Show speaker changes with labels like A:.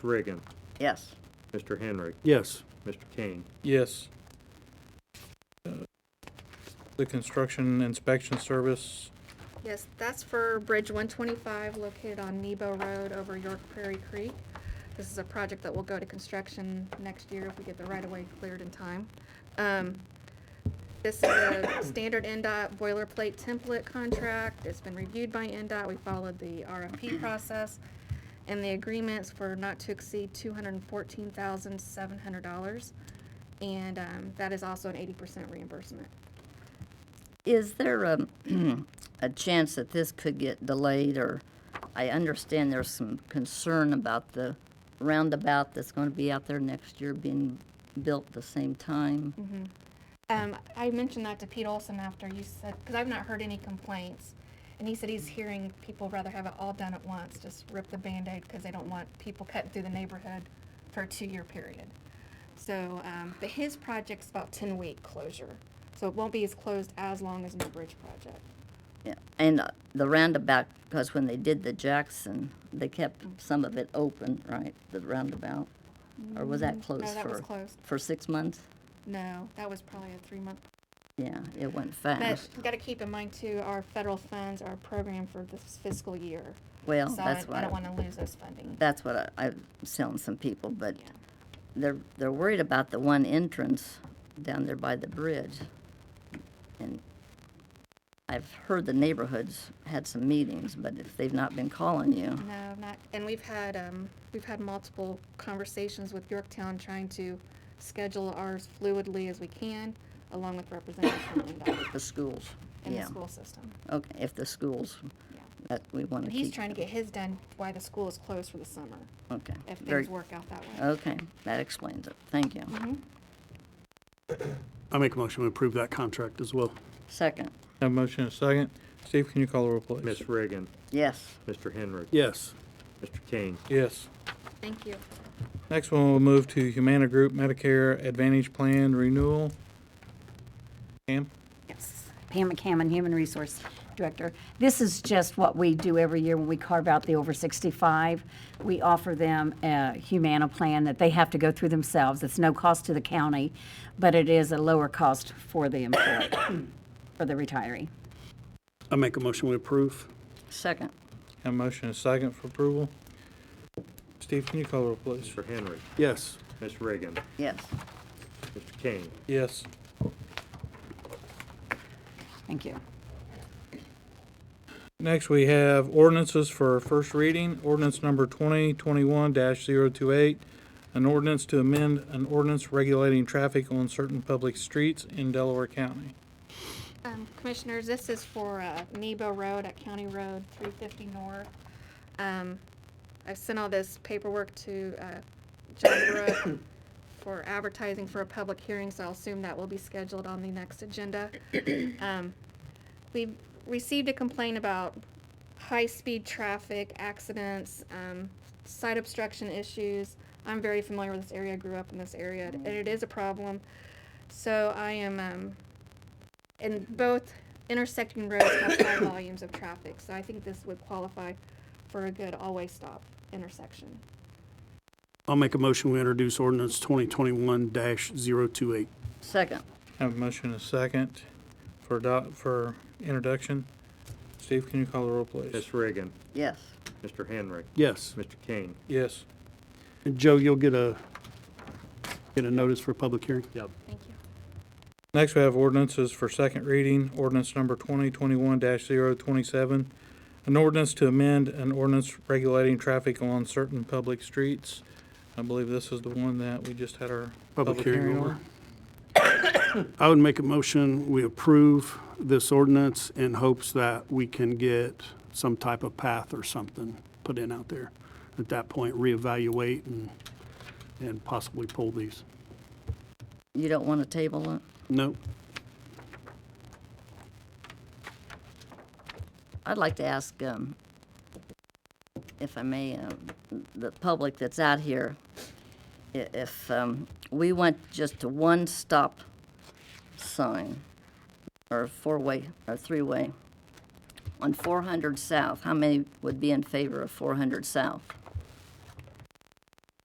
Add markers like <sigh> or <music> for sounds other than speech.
A: Reagan,
B: Yes.
A: Mr. Henry,
C: Yes.
A: Mr. Kane.
D: Yes. Uh, The construction inspection service,
E: Yes, that's for Bridge 125 located on Nebo Road over York Prairie Creek. This is a project that will go to construction next year if we get the right-of-way cleared in time. Um, This is a standard NDOT boilerplate template contract. It's been reviewed by NDOT. We followed the RFP process. And the agreement's for not to exceed $214,700. And um, that is also an 80% reimbursement.
B: Is there a, <clears throat> a chance that this could get delayed, or, I understand there's some concern about the roundabout that's going to be out there next year being built the same time?
E: Mm-hmm. Um, I mentioned that to Pete Olson after you said, because I've not heard any complaints. And he said he's hearing people rather have it all done at once, just rip the Band-Aid because they don't want people cutting through the neighborhood for a two-year period. So, um, but his project's about ten-week closure, so it won't be as closed as long as my bridge project.
B: Yeah, And uh, the roundabout, because when they did the Jackson, they kept some of it open, right, the roundabout? Or was that closed
E: Mm-hmm. No, that was
B: for,
E: closed.
B: for six months?
E: No, that was probably a three-month.
B: Yeah, it went
E: But
B: fast.
E: you gotta keep in mind too, our federal funds are programmed for this fiscal year.
B: Well,
E: So I,
B: that's
E: I
B: why.
E: don't wanna lose those funding.
B: that's what I, I'm selling some people, but
E: Yeah.
B: they're, they're worried about the one entrance down there by the bridge. And I've heard the neighborhoods had some meetings, but if they've not been calling you,
E: No, not, and we've had, um, we've had multiple conversations with Yorktown trying to schedule ours fluidly as we can, along with representatives from NDOT
B: the schools,
E: and
B: <coughs>
E: the
B: yeah.
E: school system.
B: Okay, if the schools,
E: Yeah.
B: that we want to
E: And
B: keep.
E: he's trying to get his done while the school is closed for the summer,
B: Okay.
E: if
B: very- Oh.
E: things Mm-hmm. work out that way.
B: Okay, that explains it. Thank you.
C: I make a motion to approve that contract as well.
B: Second,
D: have a motion and a second. Steve, can you call the roll, please?
A: Ms. Reagan,
B: yes,
A: Mr. Henry,
C: Yes.
A: Mr. Kane.
D: Yes.
E: Thank you.
D: Next one, we'll move to Humana Group Medicare Advantage Plan Renewal. Pam?
F: Yes, Pam McCammon, Human Resource Director. This is just what we do every year when we carve out the over 65. We offer them a Humana plan that they have to go through themselves. It's no cost to the county, but it is a lower cost for the employee, <coughs> for the retiree.
C: I make a motion to approve.
B: second,
D: Have a motion and a second for approval. Steve, can you call the roll, please?
A: Mr. Henry,
C: Yes.
A: Ms. Reagan,
B: yes.
A: Mr. Kane.
D: Yes.
F: Thank you.
D: Next, we have ordinances for first reading. Ordinance number 2021-028, an ordinance to amend an ordinance regulating traffic on certain public streets in Delaware County.
E: Um, Commissioners, this is for uh, Nebo Road at County Road 350 North. Um, I've sent all this paperwork to uh, John Brook <coughs> for advertising for a public hearing, so I'll assume that will be scheduled on the next agenda. <coughs> Um, We received a complaint about high-speed traffic accidents, um, site obstruction issues. I'm very familiar with this area, I grew up in this area, and it is a problem. So I am um, and both intersecting roads have high <coughs> volumes of traffic, so I think this would qualify for a good always stop intersection.
C: I'll make a motion we introduce ordinance 2021-028.
B: Second,
D: Have a motion and a second for adopt, for introduction. Steve, can you call the roll, please?
A: Ms. Reagan,
B: yes,
A: Mr. Henry,
C: Yes.
A: Mr. Kane.
D: Yes.
C: And Joe, you'll get a, get a notice for public hearing?
E: Thank you.
D: Next, we have ordinances for second reading. Ordinance number 2021-027, an ordinance to amend an ordinance regulating traffic on certain public streets. I believe this is the one that we just had our
C: Public
D: public
C: hearing
D: hearing
C: over.
D: on.
C: I would make a motion, we approve this ordinance in hopes that we can get some type of path or something put in out there. At that point, reevaluate and, and possibly pull these.
B: you don't want to table it?
C: No,
B: I'd like to ask, um, if I may, um, the public that's out here, i- if, um, we went just to one stop sign, or four-way, or three-way, on four hundred south, how many would be in favor of four hundred south?